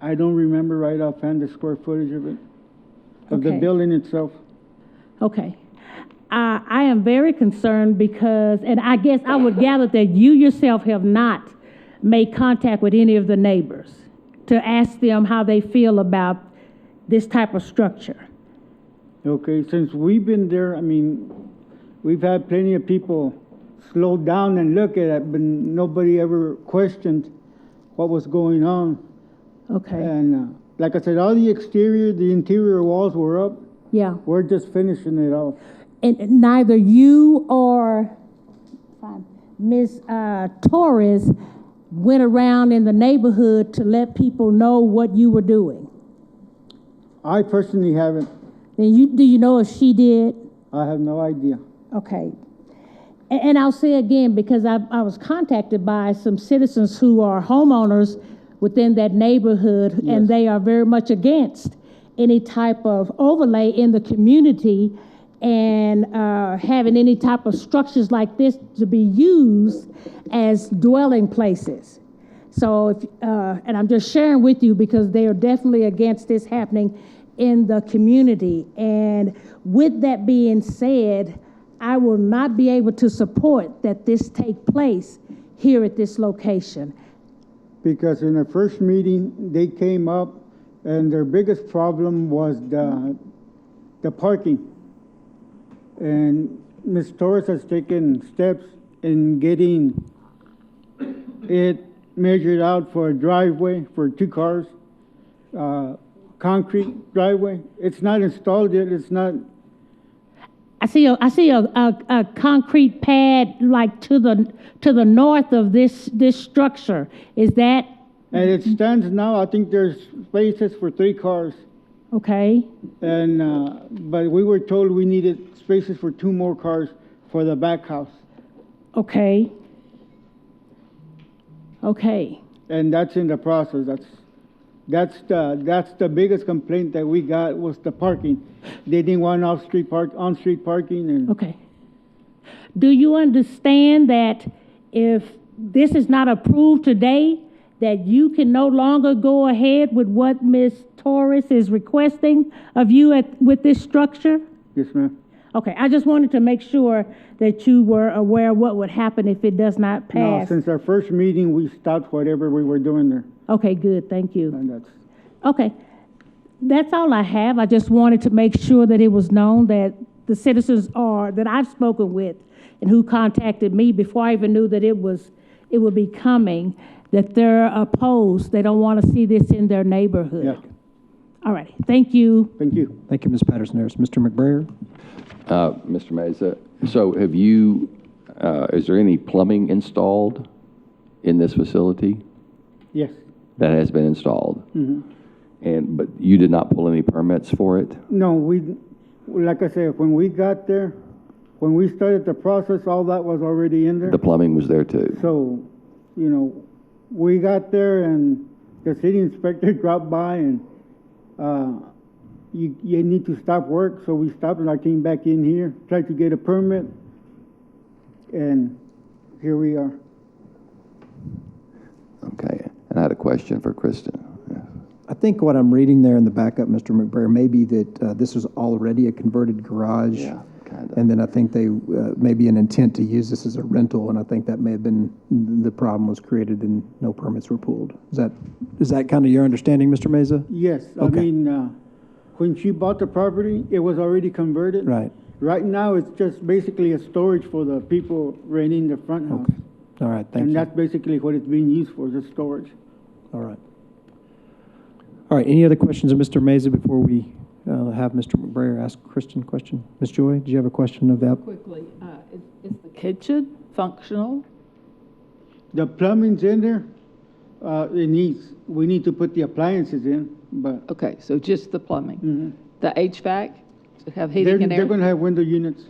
I don't remember right offhand the square footage of it, of the Okay. building itself. Okay. I, I am very concerned because, and I guess I would gather that you yourself have not made contact with any of the neighbors to ask them how they feel about this type of structure. Okay, since we've been there, I mean, we've had plenty of people slow down and look at it, but nobody ever questioned what was going on. Okay, And uh, like I said, all the exterior, the interior walls were up. yeah. We're just finishing it off. And neither you or um, Ms. uh, Torres went around in the neighborhood to let people know what you were doing. I personally haven't. And you, do you know if she did? I have no idea. Okay. A- And I'll say again, because I, I was contacted by some citizens who are homeowners within that neighborhood, and Yes. they are very much against any type of overlay in the community and uh, having any type of structures like this to be used as dwelling places. So, if, uh, and I'm just sharing with you because they are definitely against this happening in the community. And with that being said, I will not be able to support that this take place here at this location. Because in the first meeting, they came up and their biggest problem was the, the parking. And Ms. Torres has taken steps in getting it measured out for a driveway for two cars, uh, concrete driveway. It's not installed yet, it's not, I see a, I see a, a, a concrete pad like to the, to the north of this, this structure. Is that and it stands now, I think there's spaces for three cars. okay? And, uh, but we were told we needed spaces for two more cars for the back house. Okay. Okay. And that's in the process. That's, that's the, that's the biggest complaint that we got was the parking. They didn't want off-street park, on-street parking and, Okay. Do you understand that if this is not approved today, that you can no longer go ahead with what Ms. Torres is requesting of you at, with this structure? yes, ma'am. Okay, I just wanted to make sure that you were aware of what would happen if it does not No, pass. since our first meeting, we stopped whatever we were doing there. Okay, good, thank you. And that's, Okay. That's all I have. I just wanted to make sure that it was known that the citizens are, that I've spoken with and who contacted me before I even knew that it was, it would be coming, that they're opposed. They don't want to see this in their neighborhood. yeah. All right. Thank you. Thank you. Thank you, Ms. Patterson Harris. Mr. McBrayer? Uh, Mr. Mesa, so have you, uh, is there any plumbing installed in this facility? Yes. That has been installed? And, but you did not pull any permits for it? No, we, like I said, when we got there, when we started the process, all that was already in there. The plumbing was there too? So, you know, we got there and the city inspector dropped by and, uh, you, you need to stop work, so we stopped and I came back in here, tried to get a permit, and here we are. Okay, and I had a question for Kristen. I think what I'm reading there in the backup, Mr. McBrayer, may be that uh, this was already a converted garage. Yeah, kinda. And then I think they, uh, maybe an intent to use this as a rental, and I think that may have been, the problem was created and no permits were pulled. Is that, is that kind of your understanding, Mr. Mesa? Yes, I Okay. mean, uh, when she bought the property, it was already converted. Right. Right now, it's just basically a storage for the people renting the front house. All right, thank And you. that's basically what it's being used for, just storage. All right. All right, any other questions of Mr. Mesa before we uh, have Mr. McBrayer ask Kristen a question? Ms. Joy, do you have a question of that? Quickly, uh, is- is the kitchen functional? The plumbing's in there, uh, it needs, we need to put the appliances in, but Okay, so just the Mhm. plumbing? The HVAC, to have they're, heating and they're air? gonna have window units.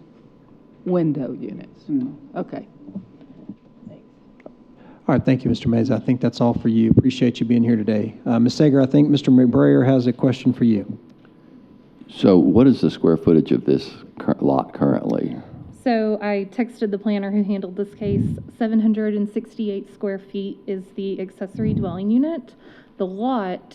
Window units? Mhm. Okay. All right, thank you, Mr. Mays. I think that's all for you. Appreciate you being here today. Uh, Ms. Sager, I think Mr. McBrayer has a question for you. So what is the square footage of this cur- lot currently? So I texted the planner who handled this case. 768 square feet is the accessory dwelling unit. The lot